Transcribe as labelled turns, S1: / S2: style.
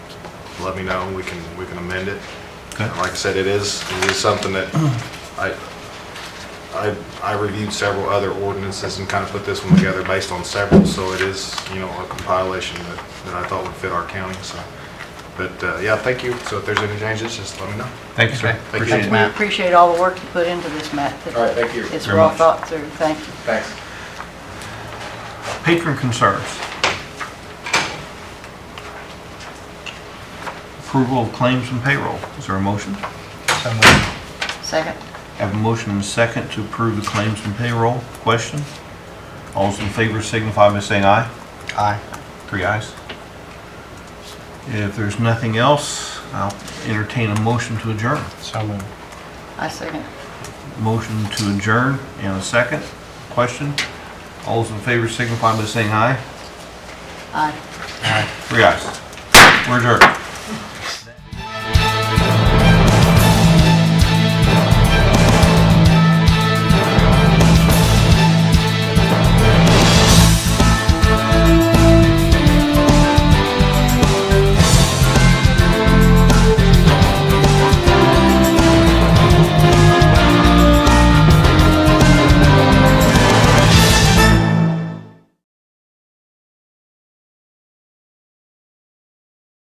S1: let me know, we can, we can amend it.
S2: Okay.
S1: And Like I said, it is, it is something that I, I, I reviewed several other ordinances and kind of put this one together based on several, so it is, you know, a compilation that, that I thought would fit our county, so. But, uh, yeah, thank you, so if there's any changes, just let me know.
S2: Thank you, sir.
S1: you.
S2: Appreciate it.
S3: We appreciate all the work you put into this, Matt.
S1: All right, thank you.
S3: It's
S2: Very
S3: well
S2: much.
S3: thought through, thank you.
S1: Thanks.
S2: Patron concerns. Approval of claims and payroll. Is there a motion?
S3: Second?
S2: Have a motion and a second to approve the claims and payroll. Question? All those in favor signify by saying aye. Aye. Three ayes. If there's nothing else, I'll entertain a motion to adjourn.
S3: I second.
S2: Motion to adjourn and a second. Question? All those in favor signify by saying aye.
S3: Aye.
S2: Three ayes. We're adjourned.